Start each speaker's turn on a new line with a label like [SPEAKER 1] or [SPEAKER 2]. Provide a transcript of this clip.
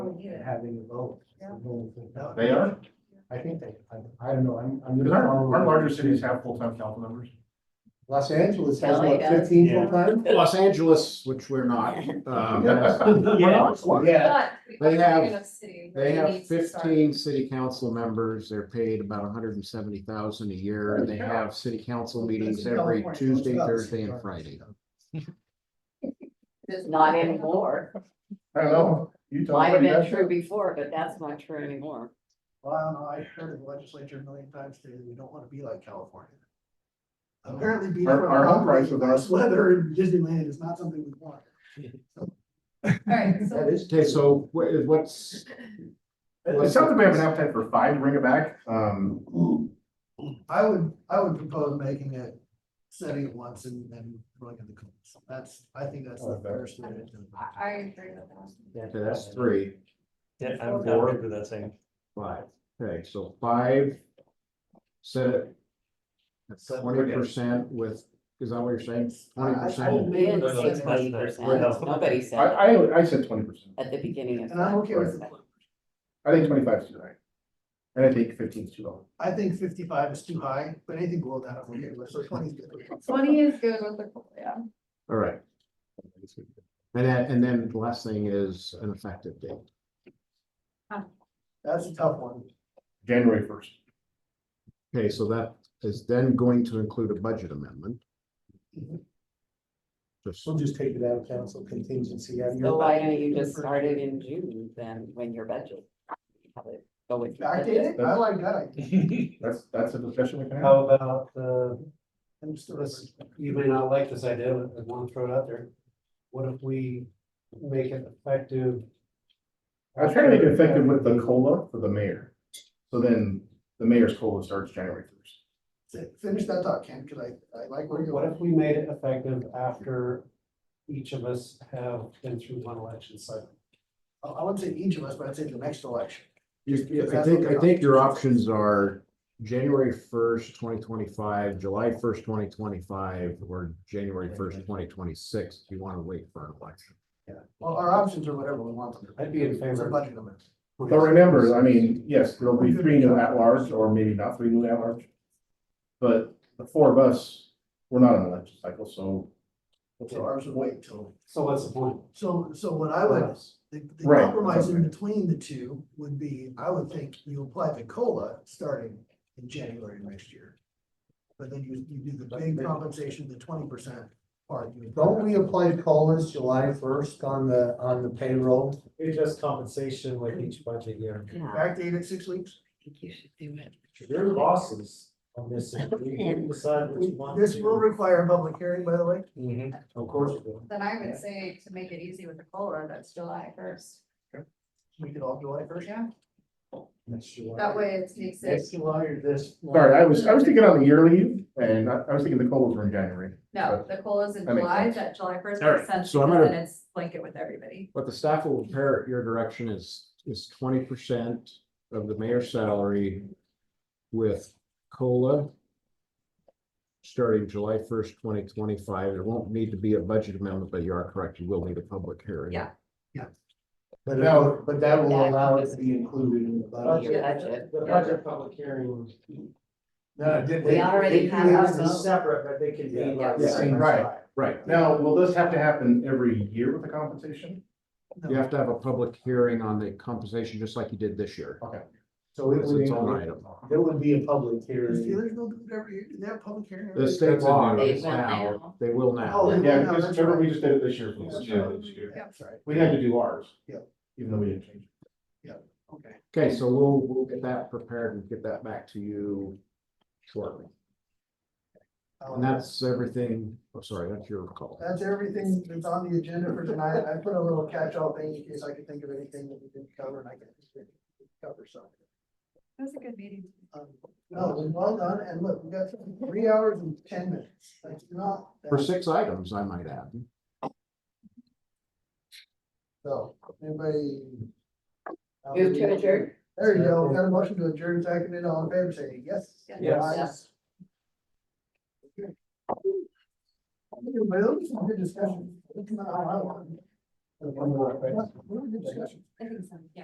[SPEAKER 1] point in having a vote.
[SPEAKER 2] Yeah.
[SPEAKER 1] They
[SPEAKER 3] They are,
[SPEAKER 1] I think they, I, I don't know, I'm, I'm.
[SPEAKER 3] because
[SPEAKER 1] gonna
[SPEAKER 3] our,
[SPEAKER 1] follow-
[SPEAKER 3] our larger cities have full-time council members.
[SPEAKER 1] Los Angeles has
[SPEAKER 4] LA
[SPEAKER 1] what,
[SPEAKER 4] does.
[SPEAKER 1] fifteen
[SPEAKER 5] Yeah.
[SPEAKER 1] full-time?
[SPEAKER 5] Los Angeles, which we're not, um,
[SPEAKER 3] Yeah.
[SPEAKER 1] Yeah,
[SPEAKER 2] But we
[SPEAKER 5] They
[SPEAKER 2] are
[SPEAKER 5] have-
[SPEAKER 2] in a city where
[SPEAKER 5] they
[SPEAKER 2] we
[SPEAKER 5] have
[SPEAKER 2] need to start.
[SPEAKER 5] fifteen city council members, they're paid about hundred and seventy thousand a year, they have city council meetings every Tuesday, Thursday, and Friday.
[SPEAKER 4] Just not anymore.
[SPEAKER 3] I don't know, Utah.
[SPEAKER 4] Might have been true before, but that's not true anymore.
[SPEAKER 1] Well, no, I've heard of the legislature a million times, today. we don't wanna be like California. Apparently being
[SPEAKER 3] Our-
[SPEAKER 1] from
[SPEAKER 3] our home
[SPEAKER 1] property
[SPEAKER 3] price with
[SPEAKER 1] tax
[SPEAKER 3] us.
[SPEAKER 1] Weather in Disneyland is not something we want.
[SPEAKER 2] All right, so
[SPEAKER 1] That is.
[SPEAKER 5] Okay, so wha- what's,
[SPEAKER 3] It it sounds like we have an appetite for five, bring it back, um,
[SPEAKER 1] I would, I would propose making it, setting it once and then throwing in the cones. That's, I think that's the
[SPEAKER 3] Okay.
[SPEAKER 1] first way to do it.
[SPEAKER 2] I, I agree with that.
[SPEAKER 5] okay, that's three,
[SPEAKER 6] Yeah, I'm I'm good with that thing.
[SPEAKER 5] five, okay, so five. Set it at twenty percent with, is that what you're saying? Twenty
[SPEAKER 1] I- I would
[SPEAKER 5] percent,
[SPEAKER 1] make it
[SPEAKER 4] Been
[SPEAKER 6] no, it's not-
[SPEAKER 4] 70%. Nobody
[SPEAKER 3] I,
[SPEAKER 4] said that
[SPEAKER 3] I, I said twenty percent,
[SPEAKER 4] at the beginning of.
[SPEAKER 1] And I'm okay with it.
[SPEAKER 3] I think twenty-five is too high. And I think fifteen is too low.
[SPEAKER 1] I think fifty-five is too high, but anything below that, I'm okay with, so twenty is good.
[SPEAKER 2] Twenty is good with the, yeah.
[SPEAKER 5] all right. And then, and then the last thing is an effective date.
[SPEAKER 1] That's a tough one.
[SPEAKER 3] January first.
[SPEAKER 5] Okay, so that is then going to include a budget amendment.
[SPEAKER 1] Mhm.
[SPEAKER 5] Just,
[SPEAKER 1] We'll just take it out of council contingency. out of your
[SPEAKER 4] So why don't
[SPEAKER 1] budget.
[SPEAKER 4] you just start it in June then, when your budget? Have it Go with. your
[SPEAKER 1] I
[SPEAKER 4] budget.
[SPEAKER 1] did it, I like that, idea.
[SPEAKER 3] That's, that's a discussion we can have.
[SPEAKER 6] How about, uh,
[SPEAKER 1] I'm still-
[SPEAKER 6] this, you may not like this idea, but I want to throw it out there. What if we make it effective?
[SPEAKER 3] I was trying to make it effective with the COLA for the mayor. So then the mayor's COLA starts January first.
[SPEAKER 1] Fi- Finish that thought, Ken, cause I, I like where you're
[SPEAKER 6] What
[SPEAKER 1] going.
[SPEAKER 6] if we made it effective after each of us have been through one election cycle?
[SPEAKER 1] I, I wouldn't say each of us, but I'd say the next election.
[SPEAKER 5] You- I think, I think your options are January first, twenty twenty-five, July first, twenty twenty-five, or January first, twenty twenty-six, if you want to wait for an election.
[SPEAKER 1] Well, our options are whatever we want them to. be.
[SPEAKER 6] I'd be in
[SPEAKER 1] It's a
[SPEAKER 6] favor.
[SPEAKER 1] budget amendment.
[SPEAKER 3] But remember, I mean, yes, there'll be three new at-large, or maybe not three new at-large. But the four of us, we're not on the election cycle, so.
[SPEAKER 1] So ours would wait till,
[SPEAKER 6] So what's the point?
[SPEAKER 1] so, so what I would, the, the
[SPEAKER 3] Right.
[SPEAKER 1] compromise in between the two would be, I would think you apply the COLA starting in January next year. But then you, you do the big compensation, the twenty percent part.
[SPEAKER 7] Don't we apply COLAs July first on the, on the payroll?
[SPEAKER 6] It's just compensation like each budget year.
[SPEAKER 4] Yeah, I
[SPEAKER 1] Backdate at six weeks?
[SPEAKER 4] think you should do it.
[SPEAKER 6] Your bosses on this, you decide what you want. to Mm-hmm.
[SPEAKER 1] This will
[SPEAKER 6] do.
[SPEAKER 1] require a public hearing, by the way.
[SPEAKER 6] Of course you will.
[SPEAKER 2] Then I would say to make it easy with the COLA, that's July first.
[SPEAKER 1] We could all July first.
[SPEAKER 2] Yeah,
[SPEAKER 6] That's July.
[SPEAKER 2] that way it makes it,
[SPEAKER 6] Next July or this?
[SPEAKER 3] Sorry, I was, I was thinking on the yearly, and I, I was thinking the COLAs were in January.
[SPEAKER 2] no, the COLA's in
[SPEAKER 3] That makes
[SPEAKER 2] July,
[SPEAKER 3] sense.
[SPEAKER 2] that July first
[SPEAKER 5] All
[SPEAKER 2] makes
[SPEAKER 5] right,
[SPEAKER 2] sense,
[SPEAKER 5] so I'm
[SPEAKER 2] because
[SPEAKER 5] gonna-
[SPEAKER 2] then it's blanket with everybody.
[SPEAKER 5] What the staff will prepare at your direction is, is twenty percent of the mayor's salary with COLA starting July first, twenty twenty-five. There won't need to be a budget amendment, but you are correct. You will need a public hearing.
[SPEAKER 2] Yeah.
[SPEAKER 7] But
[SPEAKER 3] No.
[SPEAKER 7] that, but that will allow it to be included in the budget.
[SPEAKER 4] Your budget.
[SPEAKER 6] The budget public hearing.
[SPEAKER 7] No, they-
[SPEAKER 4] We already
[SPEAKER 7] they can
[SPEAKER 4] have
[SPEAKER 7] have
[SPEAKER 4] ours.
[SPEAKER 7] them Separate, but they can be like the
[SPEAKER 3] Yeah,
[SPEAKER 7] same.
[SPEAKER 3] right.
[SPEAKER 7] side.
[SPEAKER 5] Right.
[SPEAKER 3] Now, will this have to happen every year with the compensation?
[SPEAKER 5] You have to have a public hearing on the compensation, just like you did this year.
[SPEAKER 7] So it
[SPEAKER 5] It's
[SPEAKER 7] would,
[SPEAKER 5] its own
[SPEAKER 7] include-
[SPEAKER 5] item.
[SPEAKER 7] it would be a public
[SPEAKER 1] Does
[SPEAKER 7] hearing.
[SPEAKER 1] Steelers go do it every year? Do they have public hearing? every
[SPEAKER 5] The
[SPEAKER 1] year?
[SPEAKER 5] state law
[SPEAKER 4] They
[SPEAKER 5] is
[SPEAKER 4] will
[SPEAKER 5] now,
[SPEAKER 4] now.
[SPEAKER 5] they will now.
[SPEAKER 1] Oh, they will
[SPEAKER 3] Yeah,
[SPEAKER 1] now,
[SPEAKER 3] because
[SPEAKER 1] that's
[SPEAKER 3] remember,
[SPEAKER 1] right.
[SPEAKER 3] we just did it this year.
[SPEAKER 1] That's
[SPEAKER 3] folks.
[SPEAKER 1] right. Yeah, that's right.
[SPEAKER 3] We had to do ours.
[SPEAKER 1] Yeah.
[SPEAKER 3] Even though we didn't change.
[SPEAKER 1] Okay.
[SPEAKER 5] Okay, so we'll, we'll get that prepared and get that back to you shortly. And that's everything, oh, sorry, that's your call.
[SPEAKER 1] That's everything that's on the agenda for tonight. I put a little catch-all thing in case I could think of anything that we didn't cover and I can cover something.
[SPEAKER 2] That was a good meeting.
[SPEAKER 1] Um, No, it was well done, and look, we got three hours and ten minutes, that's not,
[SPEAKER 5] For
[SPEAKER 1] bad.
[SPEAKER 5] six items, I might add.
[SPEAKER 1] so, anybody?
[SPEAKER 4] Move to adjourn.
[SPEAKER 1] There you go, we got a motion to adjourn, second it, all in favor, say yes.
[SPEAKER 2] Yes.
[SPEAKER 1] Yes. Anybody else, good discussion? What- what a good discussion.
[SPEAKER 2] I think so, yeah.